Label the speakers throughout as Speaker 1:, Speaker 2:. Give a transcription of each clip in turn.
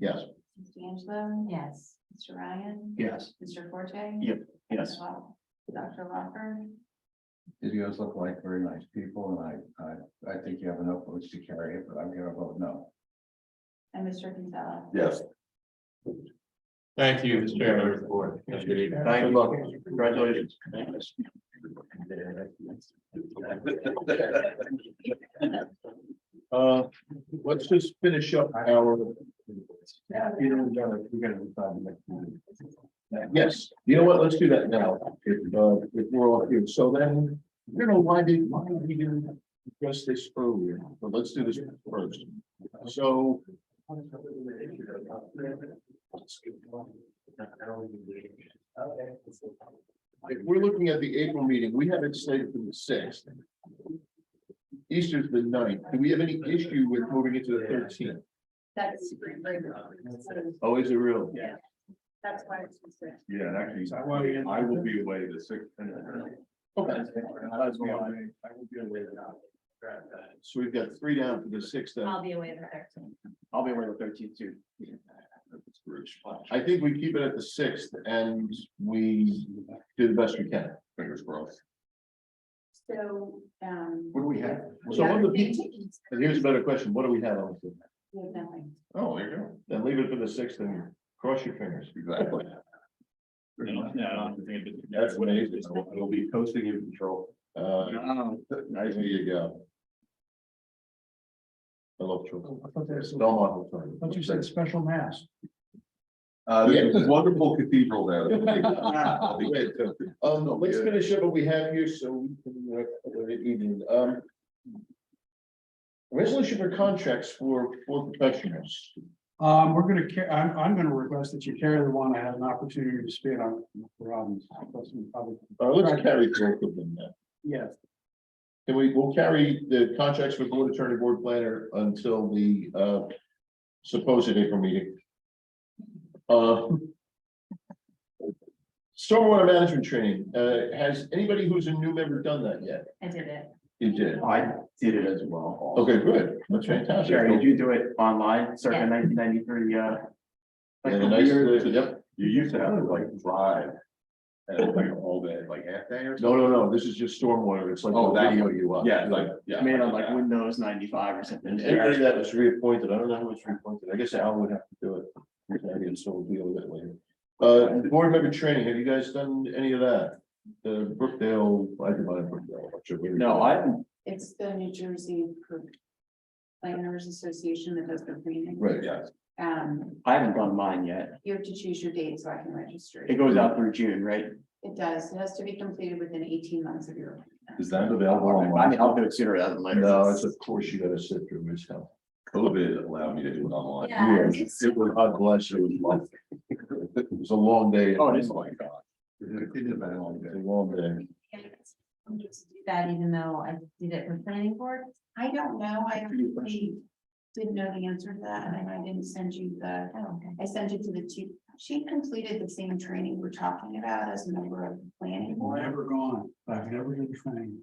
Speaker 1: Yes.
Speaker 2: Ms. D'Angelo?
Speaker 3: Yes.
Speaker 2: Mr. Ryan?
Speaker 1: Yes.
Speaker 2: Mr. Forte?
Speaker 1: Yep, yes.
Speaker 2: Dr. Lawford?
Speaker 4: You guys look like very nice people and I, I, I think you have enough votes to carry it, but I'm gonna vote no.
Speaker 2: And Mr. Gonzalez?
Speaker 1: Yes.
Speaker 5: Thank you, Mr. Chairman. Good evening.
Speaker 1: Good luck. Congratulations. Uh, let's just finish up our.
Speaker 4: Yeah, you know, we're gonna decide the next meeting.
Speaker 1: Yes, you know what, let's do that now, if, uh, if we're all here, so then, I don't know, why did, why did we didn't address this earlier, but let's do this first, so. If we're looking at the April meeting, we have it slated for the sixth. Easter's the ninth, do we have any issue with moving it to the thirteenth?
Speaker 2: That's spring break.
Speaker 1: Oh, is it real?
Speaker 2: Yeah. That's why it's considered.
Speaker 4: Yeah, and
Speaker 6: um,
Speaker 1: Why-
Speaker 4: actually, I will be away the sixth. and the ninth.
Speaker 1: Okay.
Speaker 4: I will be away- I will be away the-
Speaker 1: So we've got three down for the sixth. then.
Speaker 3: I'll be away the thirteenth.
Speaker 1: I'll be away the thirteenth too. I think we keep it at the sixth and we do the best we can.
Speaker 4: Fingers crossed.
Speaker 2: So, um.
Speaker 4: What do we have?
Speaker 1: So one of the
Speaker 2: thing to
Speaker 1: people,
Speaker 2: eat,
Speaker 1: and here's a better question, what do we have on? the-
Speaker 2: we have nothing.
Speaker 4: Oh, there you go.
Speaker 1: Then leave it for the sixth and cross your fingers.
Speaker 4: Exactly.
Speaker 1: That's what it is.
Speaker 4: It'll be posting in control.
Speaker 1: Uh,
Speaker 4: Nice
Speaker 1: there you go. I love children.
Speaker 6: Oh, I thought that's, I
Speaker 1: Don't want
Speaker 6: thought you said special mass.
Speaker 4: Uh,
Speaker 1: there's this
Speaker 4: wonderful cathedral there.
Speaker 1: to. Um, let's finish up what we have here, so we can, uh, for the evening, um. Resolution for contracts for, for professionals.
Speaker 6: Um, we're gonna, ca- I'm, I'm gonna request that you carry the one I had an opportunity to spit on. Robin's.
Speaker 1: Uh, let's carry both of them then.
Speaker 6: Yes,
Speaker 1: Can we, we'll carry the contracts with board attorney, board planner until the, uh, supposed April meeting. Uh. Stormwater management training, uh, has anybody who's a new member done that yet?
Speaker 3: I did it.
Speaker 1: You did.
Speaker 7: I did it as well.
Speaker 1: Okay, good. That's fantastic.
Speaker 7: Sherry, did you do it online
Speaker 3: Yeah.
Speaker 7: circa nineteen ninety-three, uh? like
Speaker 1: And
Speaker 7: the
Speaker 1: a nice,
Speaker 7: weird-
Speaker 1: uh, yep.
Speaker 4: You used to have to like drive. And like all day, like half day or something.
Speaker 1: No, no, no, this is just stormwater. It's like
Speaker 4: Oh,
Speaker 1: a
Speaker 4: that
Speaker 1: video you watch.
Speaker 4: Yeah, like, yeah.
Speaker 7: Made on like Windows ninety-five or something.
Speaker 1: And anybody that was reappointed, I don't know who was reappointed, I guess Alan would have to do it. And so we'll deal with it later. Uh, board member training, have you guys done any of that? The Brookdale, I did mine in Brookdale. I'm sure we-
Speaker 7: No, I haven't.
Speaker 2: It's the New Jersey Planners Association that does the training.
Speaker 1: Right, yeah.
Speaker 2: Um,
Speaker 7: I haven't done mine yet.
Speaker 2: you have to choose your date so I can register.
Speaker 7: It goes out through June, right?
Speaker 2: It does. It has to be completed within eighteen months of your.
Speaker 4: Is that available
Speaker 7: I mean,
Speaker 4: online?
Speaker 7: I'll do it sooner rather than later.
Speaker 1: No, it's of course you gotta sit through this hell.
Speaker 4: COVID allowed me to do it online.
Speaker 3: Yeah.
Speaker 1: It was, God bless you, it was long. It was a long day.
Speaker 7: Oh, it is.
Speaker 4: Oh my God. It has been a long day.
Speaker 1: It was a long day.
Speaker 3: I'm just do that even though I did it with planning board.
Speaker 2: I don't know. I really didn't know the answer to that and I didn't send you the,
Speaker 3: Oh, okay.
Speaker 2: I sent it to the two. She completed the same training we're talking about as a member of the planning
Speaker 6: I've
Speaker 2: board.
Speaker 6: never gone, I've never been trained.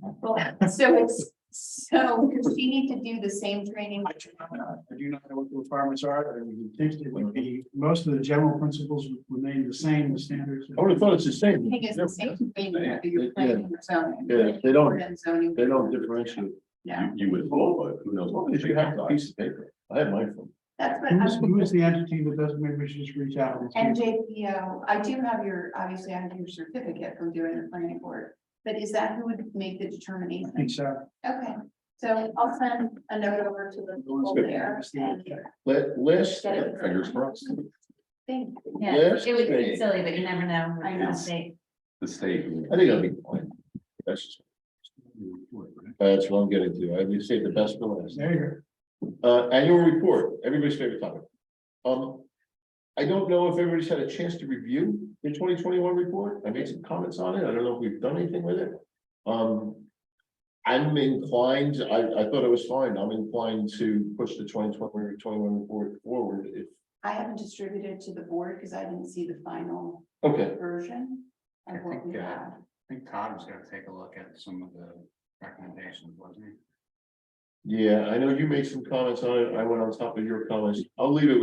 Speaker 2: Well, so it's, so does she need to do the same training?
Speaker 6: I do not know- I do not know what the requirements are, I would think it would be, most of the general principles would remain the same, the standards.
Speaker 1: I would have thought it's the
Speaker 2: I
Speaker 1: same.
Speaker 2: think it's the same training that you're planning or zoning.
Speaker 1: Yeah, they don't-
Speaker 2: Or zoning.
Speaker 1: They don't differentiate.
Speaker 2: Yeah,
Speaker 4: You would, but who knows?
Speaker 1: Well, if you have a piece of paper, I have mine from.
Speaker 2: that's what
Speaker 6: Who's,
Speaker 2: I'm,
Speaker 6: who is the entity that doesn't, maybe we should just reach out. and see.
Speaker 2: NJPO, I do have your, obviously I have your certificate from doing the planning board. But is that who would make the
Speaker 6: I
Speaker 2: determination?
Speaker 6: think so.
Speaker 2: Okay, so I'll send a note over to the people there and
Speaker 1: Let, list.
Speaker 2: Get it.
Speaker 4: Fingers crossed.
Speaker 2: think,
Speaker 3: Yeah,
Speaker 1: Yes,
Speaker 3: it would be
Speaker 1: great.
Speaker 3: silly, but you never know.
Speaker 2: I know.
Speaker 3: They-
Speaker 4: The state.
Speaker 1: I think I'll be fine. That's just. That's what I'm getting to. I would say the best for last.
Speaker 6: There you go.
Speaker 1: Uh, annual report, everybody's favorite topic. Um. I don't know if everybody's had a chance to review the twenty twenty-one report. I made some comments on it. I don't know if we've done anything with it. Um. I'm inclined, I, I thought it was fine. I'm inclined to push the 2021 report forward if.
Speaker 2: I haven't distributed to the board because I didn't see the final
Speaker 1: Okay.
Speaker 2: version. of what we have.
Speaker 8: think Todd was gonna take a look at some of the recommendations, wasn't he?
Speaker 1: Yeah, I know you made some comments on it. I went on top of your comments. I'll leave it with